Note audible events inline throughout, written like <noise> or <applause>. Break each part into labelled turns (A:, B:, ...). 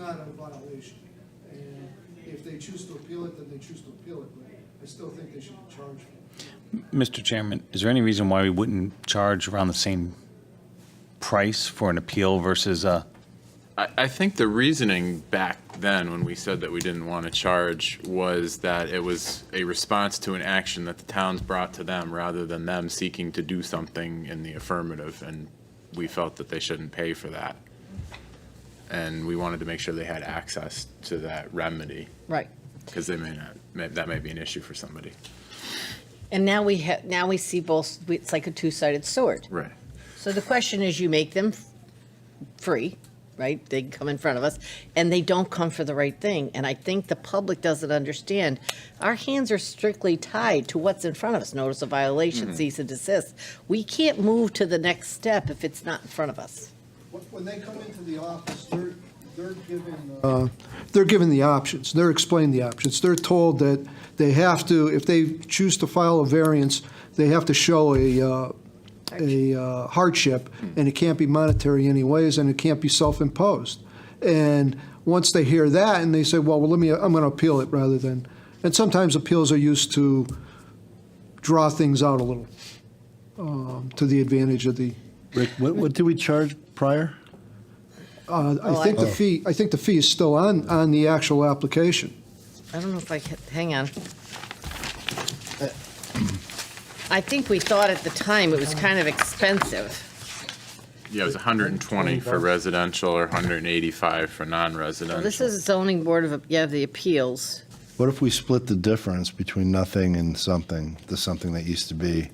A: not a violation. And if they choose to appeal it, then they choose to appeal it, but I still think they should be charged.
B: Mr. Chairman, is there any reason why we wouldn't charge around the same price for an appeal versus uh, a,
C: I, I think the reasoning back then, when we said that we didn't want to charge, was that it was a response to an action that the towns brought to them, rather than them seeking to do something in the affirmative, and we felt that they shouldn't pay for that. And we wanted to make sure they had access to that remedy,
D: Right.
C: because they may not, may- that may be an issue for somebody.
D: And now we have, now we see both, it's like a two-sided sword.
C: Right.
D: So the question is, you make them f- free, right? They come in front of us, and they don't come for the right thing. And I think the public doesn't understand. Our hands are strictly tied to what's in front of us, notice of violation, cease and desist. We can't move to the next step if it's not in front of us.
A: When- When they come into the office, they're, they're given. uh, They're given the options, they're explained the options. They're told that they have to, if they choose to file a variance, they have to show a, uh, a uh, hardship, and it can't be monetary anyways, and it can't be self-imposed. And once they hear that, and they say, well, well, let me, I'm going to appeal it rather than, and sometimes appeals are used to draw things out a little, um, to the advantage of the
E: Rick, what, what did we charge prior?
A: Uh,
D: Oh,
A: I think the
D: I-
A: fee, I think the fee is still on, on the actual application.
D: I don't know if I can, hang on. I think we thought at the time it was kind of expensive.
C: Yeah, it was 120 for residential or 185 for non-residential.
D: Well, this is zoning board of, yeah, the appeals.
E: What if we split the difference between nothing and something, the something that used to be?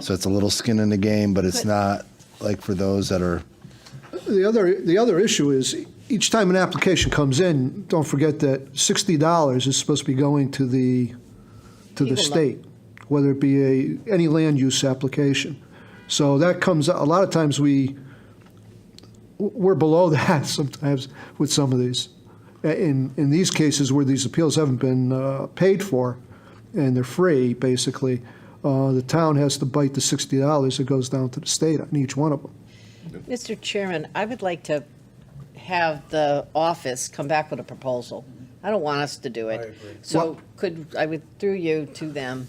E: So it's a little skin in the game, but it's not like for those that are,
A: The other, the other issue is, each time an application comes in, don't forget that $60 is supposed to be going to the, to the
D: People love-
A: state, whether it be a, any land use application. So that comes, a lot of times we, we're below <laughs> that sometimes with some of these. In, in these cases where these appeals haven't been uh, paid for, and they're free, basically, uh, the town has to bite the $60 that goes down to the state on each one of them.
D: Mr. Chairman, I would like to have the office come back with a proposal. I don't want us to do it. So could, I would, through you to them,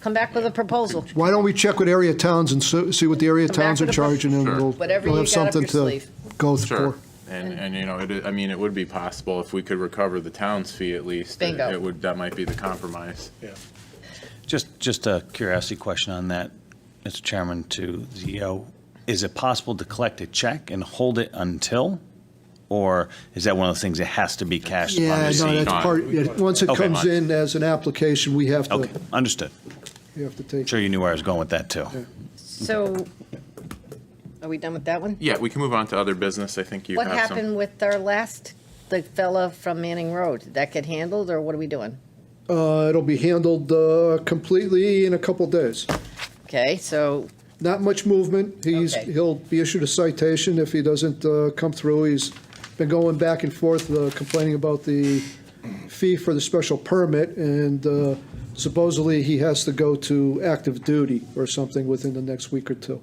D: come back with a proposal.
A: Why don't we check with area towns and so- see what the area
D: Come back
A: towns are
D: with a pro-
A: charging, and
C: Sure.
A: we'll,
D: Whatever
A: we'll
D: you
A: have
D: got up
A: something
D: your
A: to
D: sleeve.
A: go
C: Sure,
A: for.
C: and, and you know, it, i- I mean, it would be possible if we could recover the town's fee at least. it-
D: Bingo.
C: It would, that might be the compromise.
B: just, just a curiosity question on that, Mr. Chairman, to ZO. Is it possible to collect a check and hold it until? Or is that one of the things that has to be cashed upon
A: Yeah, no,
B: receipt?
A: that's
C: Gone.
A: part, yeah, once it
B: Okay.
A: comes in as an application, we have to,
B: Okay, understood.
A: we have to take.
B: Sure you knew where I was going with that, too.
D: So are we done with that one?
C: Yeah, we can move on to other business. I think you
D: What
C: have some.
D: happened with our last, the fella from Manning Road? Did that get handled or what are we doing?
A: Uh, it'll be handled uh, completely in a couple days.
D: Okay, so
A: Not much movement. He's,
D: Okay.
A: he'll be issued a citation if he doesn't uh, come through. He's been going back and forth uh, complaining about the fee for the special permit, and uh, supposedly he has to go to active duty or something within the next week or two.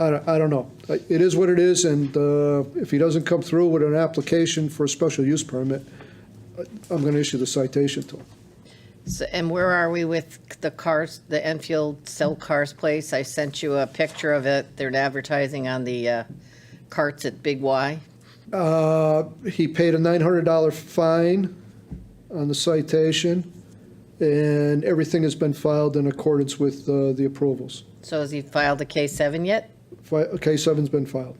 A: I don't, I don't know. It is what it is, and uh, if he doesn't come through with an application for a special use permit, uh, I'm going to issue the citation to him.
D: So- And where are we with the cars, the Enfield Sell Cars place? I sent you a picture of it. They're advertising on the uh, carts at Big Y.
A: Uh, He paid a $900 fine on the citation, and everything has been filed in accordance with uh, the approvals.
D: So has he filed the K-7 yet?
A: Fi- K-7's been filed.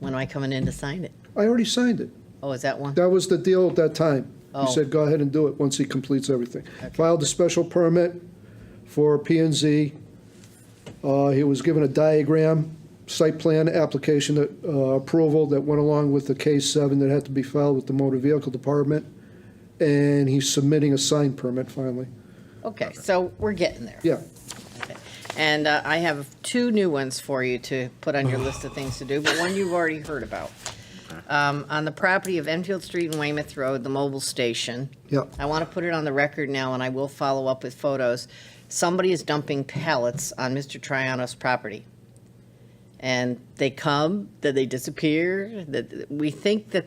D: When am I coming in to sign it?
A: I already signed it.
D: Oh, is that one?
A: That was the deal at that time.
D: Oh.
A: He said, go ahead and do it once he completes everything. Filed a special permit for P and Z. Uh, He was given a diagram, site plan application that, uh, approval that went along with the K-7 that had to be filed with the motor vehicle department. And he's submitting a sign permit finally.
D: Oh, Okay, so we're getting there.
A: Yeah,
D: And uh, I have two new ones for you to put on your list of things to do, but one you've already heard about. Um, On the property of Enfield Street and Weymouth Road, the mobile station.
A: yeah.
D: I want to put it on the record now, and I will follow up with photos. Somebody is dumping pallets on Mr. Triano's property. And they come, then they disappear, that, we think that